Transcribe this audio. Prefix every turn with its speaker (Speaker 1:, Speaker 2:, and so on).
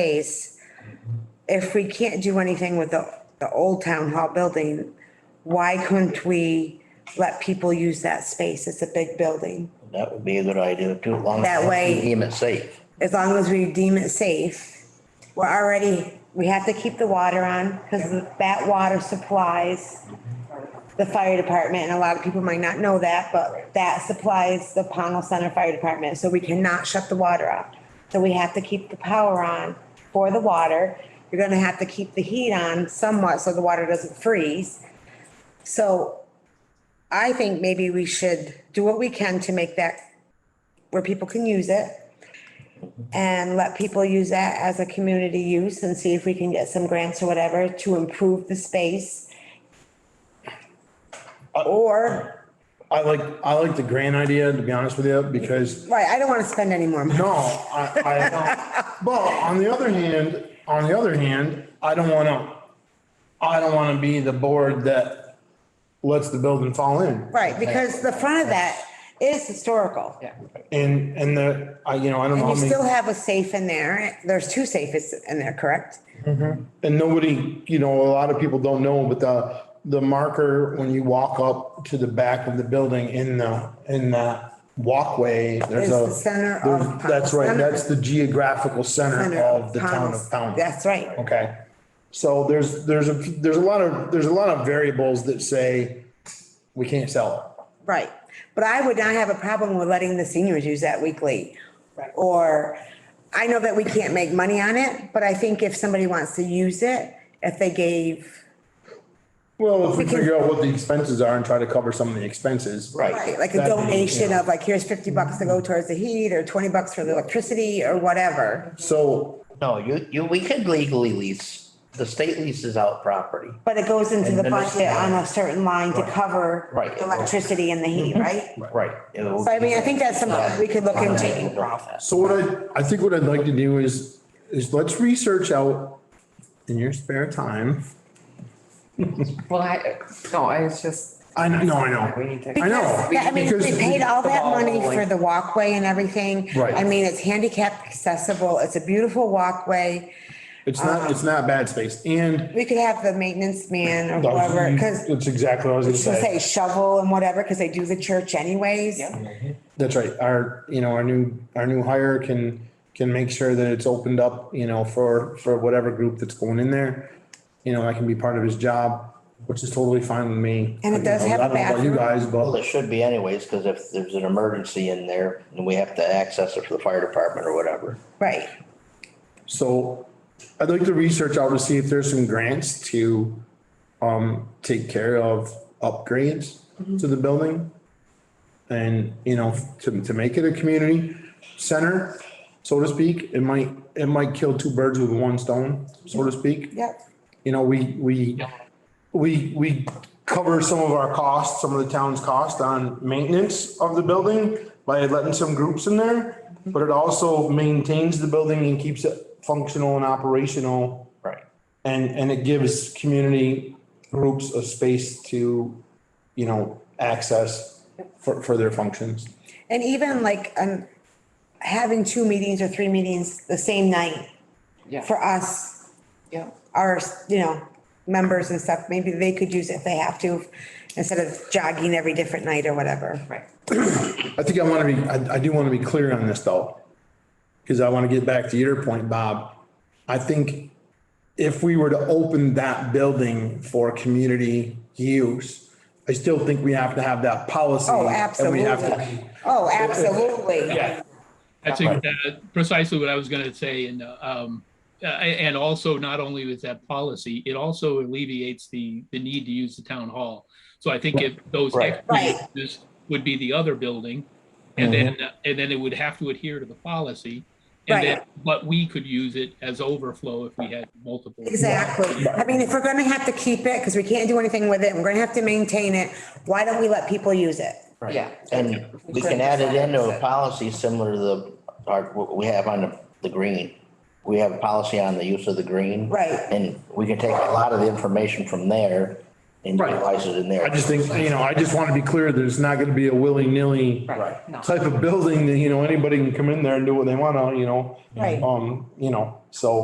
Speaker 1: space, if we can't do anything with the, the old town hall building, why couldn't we let people use that space? It's a big building.
Speaker 2: That would be a good idea too, as long as.
Speaker 1: That way-
Speaker 2: we Deem it E safe.
Speaker 1: As long as we deem it safe, we're already, we have to keep the water on because that water supplies the fire department and a lot of people might not know that, but that supplies the Pownell Center Fire Department. So we cannot shut the water off. So we have to keep the power on for the water. You're gonna have to keep the heat on somewhat so the water doesn't freeze. So I think maybe we should do what we can to make that where people can use it and let people use that as a community use and see if we can get some grants or whatever to improve the space.
Speaker 3: Uh,
Speaker 1: Or,
Speaker 3: I like, I like the grand idea, to be honest with you, because,
Speaker 1: right, I don't want to spend any more money.
Speaker 3: no, I, I don't. But on the other hand, on the other hand, I don't wanna, I don't wanna be the board that lets the building fall in.
Speaker 1: Right, because the front of that is historical. Yeah.
Speaker 3: And, and the, I, you know, I don't know.
Speaker 1: And you
Speaker 3: how many-
Speaker 1: still have a safe in there. There's two safes in there, correct?
Speaker 3: And nobody, you know, a lot of people don't know, but the, the marker, when you walk up to the back of the building in the, in that walkway, there's
Speaker 1: Is
Speaker 3: a.
Speaker 1: the center of
Speaker 3: there's-
Speaker 1: Pownell
Speaker 3: That's right,
Speaker 1: Center.
Speaker 3: that's the geographical center of the town of Pownell.
Speaker 1: That's right.
Speaker 3: Okay, so there's, there's a, there's a lot of, there's a lot of variables that say we can't sell it.
Speaker 1: Right, but I would not have a problem with letting the seniors use that weekly. Or, I know that we can't make money on it, but I think if somebody wants to use it, if they gave,
Speaker 3: Well, if we
Speaker 1: We can-
Speaker 3: figure out what the expenses are and try to cover some of the expenses.
Speaker 1: right, like a
Speaker 3: That'd be,
Speaker 1: donation
Speaker 3: yeah.
Speaker 1: of like, here's fifty bucks to go towards the heat, or twenty bucks for the electricity, or whatever.
Speaker 3: So,
Speaker 2: No, you, you, we could legally lease. The state leases out property.
Speaker 1: But it goes into the
Speaker 2: And then it's-
Speaker 1: budget on a certain line to cover
Speaker 2: Right.
Speaker 1: the electricity and the heat, right?
Speaker 2: Right.
Speaker 1: So I mean, I think that's something we could look into.
Speaker 2: profit.
Speaker 3: so what I, I think what I'd like to do is, is let's research out in your spare time.
Speaker 4: Well, I, no, I was just,
Speaker 3: I know, no, I
Speaker 4: we
Speaker 3: know.
Speaker 4: need to.
Speaker 3: I know.
Speaker 1: Because, I mean,
Speaker 3: Because
Speaker 1: they paid all that money for
Speaker 4: Like-
Speaker 1: the walkway and everything.
Speaker 3: Right.
Speaker 1: I mean, it's handicap accessible, it's a beautiful walkway.
Speaker 3: It's not, it's not bad space and.
Speaker 1: We could have the maintenance man or whoever, because
Speaker 3: That's exactly what I was gonna
Speaker 1: say shovel and whatever, because they do the church anyways.
Speaker 3: That's right. Our, you know, our new, our new hire can, can make sure that it's opened up, you know, for, for whatever group that's going in there. You know, that can be part of his job, which is totally fine with me.
Speaker 1: And it does have a
Speaker 3: I don't know about You guys,
Speaker 2: Well,
Speaker 3: but
Speaker 2: it should be anyways, because if there's an emergency in there and we have to access it for the fire department or whatever.
Speaker 1: Right,
Speaker 3: so I'd like to research out to see if there's some grants to, um, take care of upgrades to the building. And, you know, to, to make it a community center, so to speak, it might, it might kill two birds with one stone, so to speak.
Speaker 1: yep.
Speaker 3: you know, we, we, we, we cover some of our costs, some of the town's cost on maintenance of the building by letting some groups in there, but it also maintains the building and keeps it functional and operational.
Speaker 2: Right.
Speaker 3: And, and it gives community groups a space to, you know, access for, for their functions.
Speaker 1: And even like, um, having two meetings or three meetings the same night
Speaker 4: Yeah,
Speaker 1: for us,
Speaker 4: yeah.
Speaker 1: our, you know, members and stuff, maybe they could use it if they have to, instead of jogging every different night or whatever.
Speaker 4: Right.
Speaker 3: I think I want to be, I, I do want to be clear on this though. Because I want to get back to your point, Bob. I think if we were to open that building for community use, I still think we have to have that policy.
Speaker 1: Oh,
Speaker 3: and we have to
Speaker 1: absolutely. Oh, absolutely.
Speaker 3: Yeah,
Speaker 5: I think that precisely what I was going to say, and uh, um, uh, and also not only with that policy, it also alleviates the the need to use the town hall. So I think if those
Speaker 2: Right.
Speaker 1: Right.
Speaker 5: extra uses would be the other building, and
Speaker 2: Mm-hmm.
Speaker 5: then and then it would have to adhere to the policy, and then
Speaker 1: Right.
Speaker 5: but we could use it as overflow if we had multiple.
Speaker 1: Exactly. I mean, if we're gonna have to keep it, because we can't do anything with it, and we're gonna have to maintain it, why don't we let people use it?
Speaker 2: Right.
Speaker 4: Yeah.
Speaker 2: And we can add it into a policy similar to the, our, what we have on the, the green. We have a policy on the use of the green.
Speaker 1: Right.
Speaker 2: And we can take a lot of the information from there and
Speaker 3: Right.
Speaker 2: utilize it in there.
Speaker 3: I just think, you know, I just want to be clear that it's not going to be a willy-nilly
Speaker 4: Right, no.
Speaker 3: type of building that, you know, anybody can come in there and do what they want to, you know?
Speaker 1: Right.
Speaker 3: Um, you know, so.